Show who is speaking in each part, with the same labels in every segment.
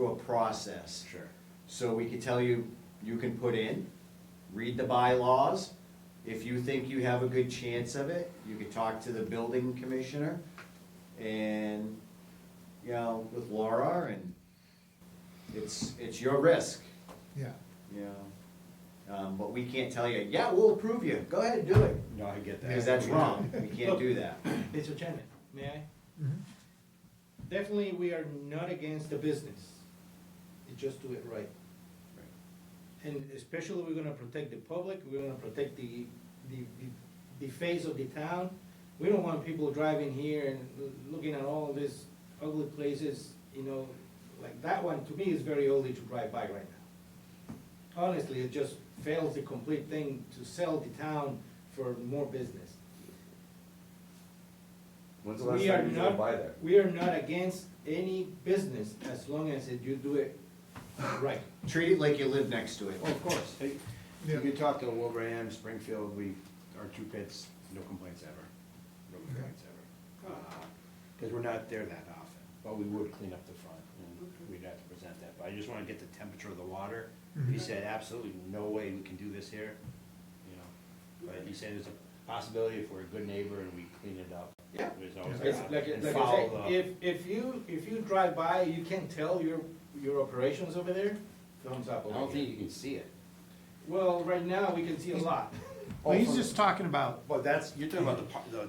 Speaker 1: through a process.
Speaker 2: Sure.
Speaker 1: So we can tell you, you can put in, read the bylaws. If you think you have a good chance of it, you can talk to the building commissioner and, you know, with Laura and it's, it's your risk,
Speaker 3: Yeah,
Speaker 1: you know. Um, but we can't tell you, yeah, we'll approve you, go ahead and do it,
Speaker 2: No, I get that.
Speaker 1: because that's wrong, we can't do that.
Speaker 2: It's a tenant, may I?
Speaker 3: Mhm.
Speaker 2: Definitely, we are not against the business. You Just do it right. And especially, we're gonna protect the public, we're gonna protect the, the, the- the face of the town. We don't want people driving here and l- looking at all these ugly places, you know, like that one, to me, is very ugly to drive by right now. Honestly, it just fails the complete thing to sell the town for more business.
Speaker 4: When's the last
Speaker 2: We are
Speaker 4: time you drove
Speaker 2: not,
Speaker 4: by there?
Speaker 2: we are not against any business as long as it- you do it right.
Speaker 1: Treat it like you live next to it.
Speaker 2: Of course.
Speaker 5: Hey,
Speaker 3: Yeah.
Speaker 5: You can talk to Wilbraham, Springfield, we, our two pits, no complaints ever, no complaints ever. Because we're not there that often, but we would clean up the front, and we'd have to present that, but I just wanna get the temperature of the water. He
Speaker 3: Mhm.
Speaker 5: said absolutely no way we can do this here, you know, but he said there's a possibility if we're a good neighbor and we clean it up.
Speaker 1: Yeah.
Speaker 5: There's always
Speaker 2: It's
Speaker 5: that,
Speaker 2: like,
Speaker 5: and
Speaker 2: like I
Speaker 5: follow
Speaker 2: said,
Speaker 5: the-
Speaker 2: if, if you, if you drive by, you can tell your, your operations over there, thumbs up
Speaker 5: I
Speaker 2: over
Speaker 5: don't think
Speaker 2: here.
Speaker 5: you can see it.
Speaker 2: Well, right now, we can see a lot,
Speaker 3: well, he's just talking about,
Speaker 5: Well, that's, you're talking about the, par- the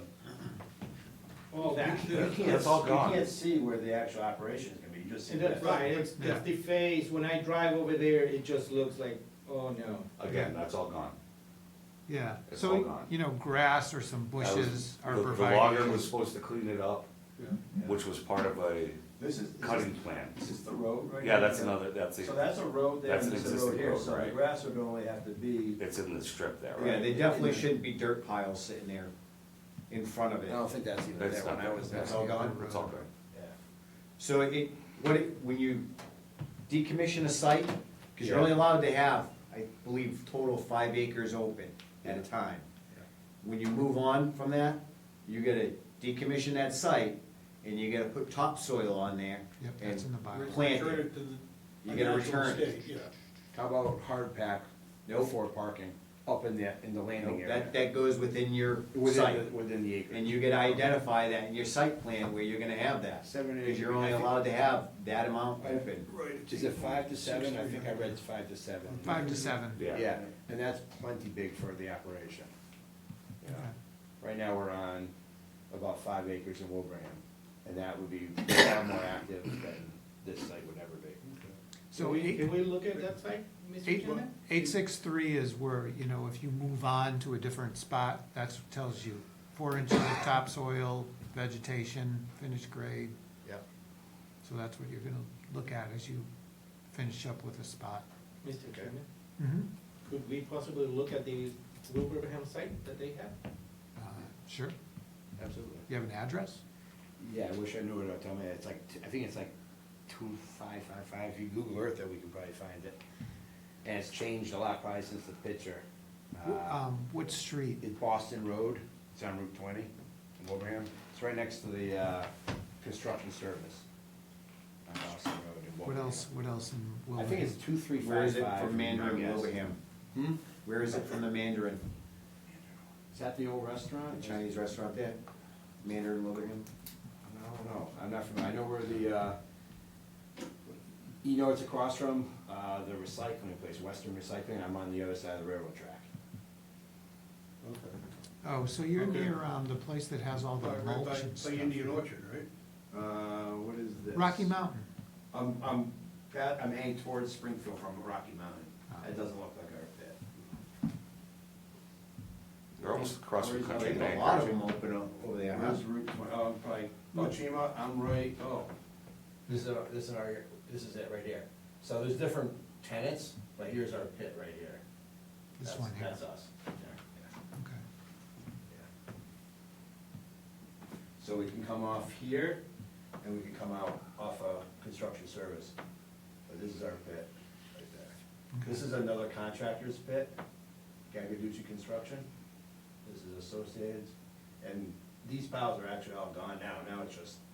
Speaker 2: all that.
Speaker 4: That's all gone.
Speaker 6: You can't see where the actual operation is gonna be, you just see
Speaker 2: And
Speaker 6: that.
Speaker 2: that's right, it's,
Speaker 3: Yeah.
Speaker 2: it's the face, when I drive over there, it just looks like, oh no.
Speaker 4: Again, that's all gone.
Speaker 3: yeah,
Speaker 4: It's all
Speaker 3: so,
Speaker 4: gone.
Speaker 3: you know, grass or some
Speaker 4: That
Speaker 3: bushes
Speaker 4: was-
Speaker 3: are
Speaker 4: the-
Speaker 3: provided.
Speaker 4: The logger was supposed to clean it up, which was part of a
Speaker 6: This is, this
Speaker 4: cutting
Speaker 6: is-
Speaker 4: plan.
Speaker 6: this is the road right
Speaker 4: Yeah,
Speaker 6: here.
Speaker 4: that's another, that's,
Speaker 6: So
Speaker 4: a-
Speaker 6: that's a road there,
Speaker 4: That's
Speaker 6: and
Speaker 4: an
Speaker 6: this is a road
Speaker 4: existing
Speaker 6: here,
Speaker 4: road,
Speaker 6: so the
Speaker 4: right.
Speaker 6: grass would only have to be,
Speaker 4: it's in the strip there,
Speaker 1: Yeah,
Speaker 4: Oh, right?
Speaker 1: they definitely shouldn't be dirt piles sitting there in front of
Speaker 5: I
Speaker 1: it.
Speaker 5: don't think that's even
Speaker 4: That's
Speaker 5: there when
Speaker 4: not
Speaker 5: I
Speaker 4: there.
Speaker 5: was there.
Speaker 1: That's all gone?
Speaker 4: It's all good.
Speaker 6: yeah.
Speaker 1: So it, what, it- when you decommission a site, because you're only allowed to have, I believe, total five acres open at a time. When you move on from that, you gotta decommission that site, and you gotta put topsoil on there.
Speaker 3: Yep, that's
Speaker 1: and
Speaker 3: in the bylaws.
Speaker 1: Plant
Speaker 7: Return
Speaker 1: it,
Speaker 7: it to the.
Speaker 1: you
Speaker 7: natural
Speaker 1: gotta return it.
Speaker 7: state, Yeah.
Speaker 5: How about hard pack, no for parking, up in the, in the landing
Speaker 1: No, That,
Speaker 5: area?
Speaker 1: that goes within your
Speaker 5: Within,
Speaker 1: site,
Speaker 5: the- within the
Speaker 1: and
Speaker 5: acre.
Speaker 1: you gotta identify that in your site plan where you're gonna have that.
Speaker 5: Seven, eight.
Speaker 1: Because you're only allowed to have that amount open.
Speaker 7: Right.
Speaker 5: Is it five to seven? I think I read it's five to seven.
Speaker 3: Five to seven.
Speaker 5: Yeah, and that's plenty big for the operation.
Speaker 3: Okay.
Speaker 5: Right now, we're on about five acres in Wilbraham, and that would be far more active than this site would ever be.
Speaker 3: So
Speaker 2: Can we-
Speaker 3: eight,
Speaker 2: Can we look at that site, Mr.
Speaker 3: eight,
Speaker 2: Chairman?
Speaker 3: eight six three is where, you know, if you move on to a different spot, that's what tells you. Four inches of topsoil, vegetation, finished grade,
Speaker 5: Yep.
Speaker 3: so that's what you're gonna look at as you finish up with a spot.
Speaker 2: Mr. Chairman,
Speaker 3: Mm-hmm.
Speaker 2: could we possibly look at the Wilbraham site that they have?
Speaker 3: Uh, Sure,
Speaker 5: Absolutely.
Speaker 3: you have an address?
Speaker 5: Yeah, I wish I knew it, tell me, it's like, t- I think it's like two five five five, if you Google Earth it, we can probably find it. And it's changed a lot probably since the picture.
Speaker 3: Wh-
Speaker 5: Uh,
Speaker 3: Um, what street?
Speaker 5: It's Boston Road, it's on Route twenty, in Wilbraham, it's right next to the, uh, construction service. On Boston Road in
Speaker 3: What
Speaker 5: Wilbraham.
Speaker 3: else, what else in
Speaker 5: I
Speaker 3: Wilbraham?
Speaker 5: think it's two three five five.
Speaker 1: Where is it from Mandarin
Speaker 5: I guess.
Speaker 1: Wilbraham?
Speaker 5: Hmm?
Speaker 1: Where is it from the Mandarin,
Speaker 5: Is that the old restaurant?
Speaker 1: the Chinese restaurant there? Mandarin Wilbraham?
Speaker 5: No, no, I'm not familiar, I know where the, uh, you know, it's across from, uh, the recycling place, Western Recycling, I'm on the other side of the railroad track.
Speaker 3: Oh, so you're
Speaker 7: Okay.
Speaker 3: near, um, the place that has all the
Speaker 7: Right by-
Speaker 3: mulch and
Speaker 7: By
Speaker 3: stuff.
Speaker 7: Indian Orchard, right?
Speaker 6: Uh, what is this?
Speaker 3: Rocky Mountain,
Speaker 6: I'm, I'm, that- I'm heading towards Springfield from Rocky Mountain, it
Speaker 3: Ah.
Speaker 6: doesn't look like our pit.
Speaker 4: They're almost across from
Speaker 6: Where's the
Speaker 4: Country
Speaker 6: lake?
Speaker 1: A
Speaker 4: Bank.
Speaker 1: lot of them open up over there, huh?
Speaker 6: Where's Route twenty, oh, probably, oh, Chima, I'm right, oh.
Speaker 8: This is our, this is our, this is it right here. So there's different tenants, but here's our pit right here.
Speaker 3: this
Speaker 8: That's-
Speaker 3: one here,
Speaker 8: That's us.
Speaker 3: okay.
Speaker 6: So we can come off here, and we can come out off of construction service. But this is our pit, right there. This is another contractor's pit, Gagaducci Construction. This is Associated, and these piles are actually all gone now, now it's just